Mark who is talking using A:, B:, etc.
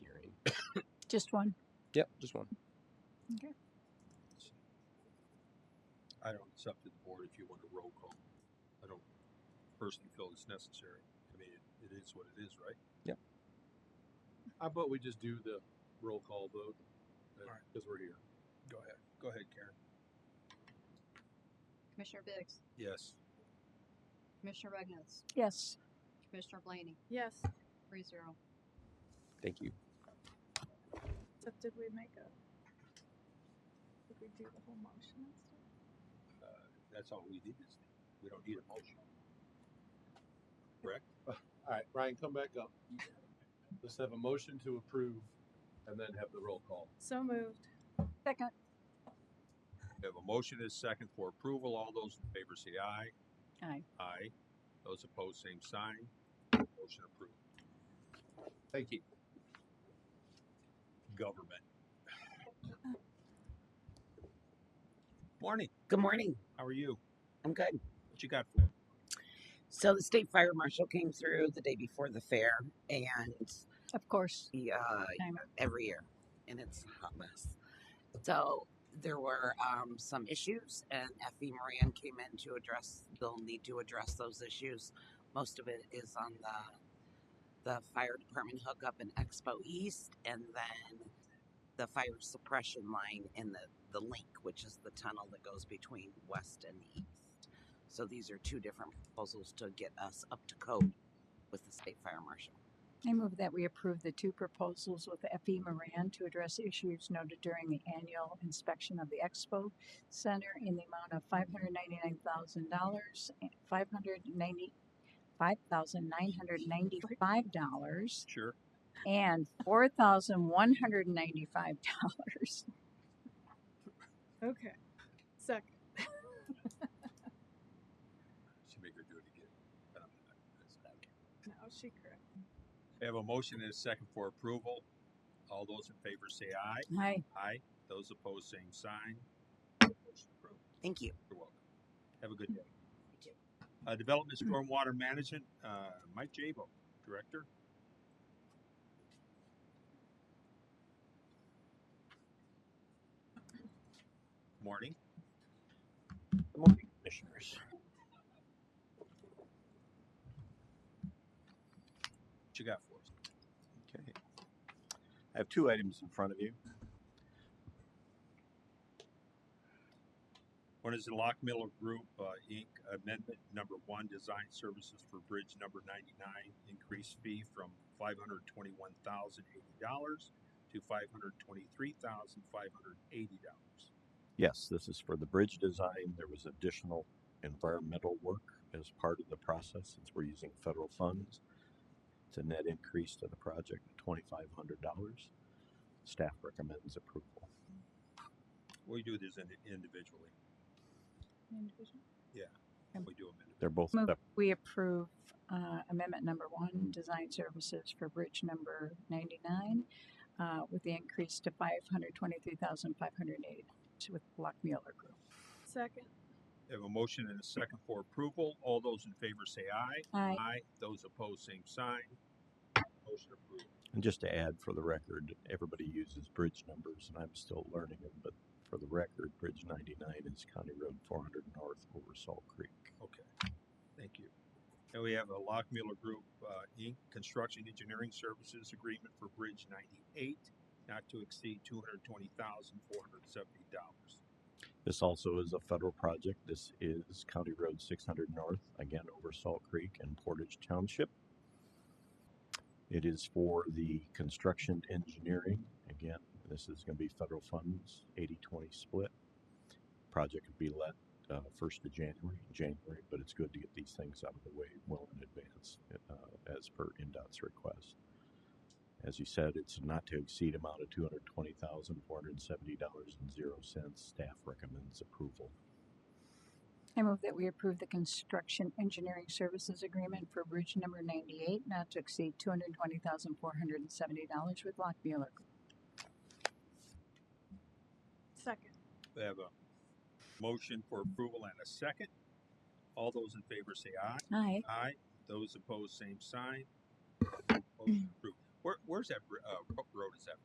A: Just one.
B: Yep, just one.
A: Okay.
C: I don't, it's up to the board if you want a roll call. I don't personally feel it's necessary. I mean, it, it is what it is, right?
B: Yep.
C: How about we just do the roll call vote?
D: Alright.
C: Because we're here. Go ahead. Go ahead, Karen.
E: Commissioner Biggs,
C: Yes.
E: Commissioner Regness,
A: Yes.
E: Commissioner Blaney,
F: Yes.
E: three zero.
B: Thank you.
F: Except did we make a? Did we do the whole motion and stuff?
C: That's all we need is, we don't need a motion.
D: Uh, All right, Ryan, come back up. Let's have a motion to approve and then have the roll call.
F: So moved.
A: Second.
C: We have a motion and a second for approval. All those in favor say aye.
A: Aye.
C: Aye. Those opposed, same sign. Motion approved.
D: Thank you.
C: Government. Morning.
G: Good morning.
C: How are you?
G: I'm good.
C: What you got for me?
G: So the state fire marshal came through the day before the fair, and
A: Of course.
G: he, uh,
A: Time.
G: every year, and it's a hot mess. So there were um, some issues, and Effie Moran came in to address. They'll need to address those issues. Most of it is on the the fire department hookup in Expo East, and then the fire suppression line and the the link, which is the tunnel that goes between west and east. So these are two different proposals to get us up to code with the state fire marshal.
A: I move that we approve the two proposals with F.E. Moran to address issues noted during the annual inspection of the Expo Center in the amount of five hundred ninety-nine thousand dollars, five hundred ninety, five thousand nine hundred ninety-five dollars
C: Sure.
A: and four thousand one hundred ninety-five dollars.
F: Okay. Second.
C: She make her do it again. But I'm not gonna do that.
F: No, she correct.
C: We have a motion and a second for approval. All those in favor say aye.
A: Hi,
C: Aye. Those opposed, same sign. Motion approved.
G: Thank you.
C: You're welcome. Have a good day. Uh, Development Stormwater Management, uh, Mike Jabo, Director. Morning.
H: Good morning, commissioners.
C: What you got for us?
H: Okay. I have two items in front of you.
C: One is the Lock Miller Group, uh, Inc., Amendment Number One, Design Services for Bridge Number Ninety-nine, increased fee from five hundred twenty-one thousand eighty dollars to five hundred twenty-three thousand five hundred eighty dollars.
H: Yes, this is for the bridge design. There was additional environmental work as part of the process since we're using federal funds. It's a net increase to the project of twenty-five hundred dollars. Staff recommends approval.
C: We do this indi- individually. Yeah,
A: Um,
C: we do them individually.
H: They're both
A: Move,
H: sep-
A: we approve uh, amendment number one, design services for bridge number ninety-nine, uh, with the increase to five hundred twenty-three thousand five hundred eighty with Lock Mueller Group.
F: Second.
C: We Have a motion and a second for approval. All those in favor say aye.
A: Aye.
C: Aye. Those opposed, same sign. Motion approved.
H: And just to add for the record, everybody uses bridge numbers and I'm still learning them, but for the record, Bridge ninety-nine is County Road four hundred north over Salt Creek.
C: Okay, thank you. And we have a Lock Miller Group, uh, Inc., Construction Engineering Services Agreement for Bridge ninety-eight, not to exceed two hundred twenty thousand, four hundred seventy dollars.
H: This also is a federal project. This is County Road six hundred north, again over Salt Creek and Portage Township. It is for the construction engineering. Again, this is gonna be federal funds, 80-20 split. Project could be let, uh, first of January, January, but it's good to get these things out of the way well in advance, uh, as per NDOT's request. As you said, it's not to exceed amount of two hundred twenty thousand, four hundred seventy dollars and zero cents. Staff recommends approval.
A: I move that we approve the construction engineering services agreement for bridge number ninety-eight, not to exceed two hundred twenty thousand four hundred and seventy dollars with Lock Mueller Group.
F: Second.
C: We have a motion for approval and a second. All those in favor say aye.
A: Aye.
C: Aye. Those opposed, same sign. Motion approved. Where, where's that, br- uh, ro- road?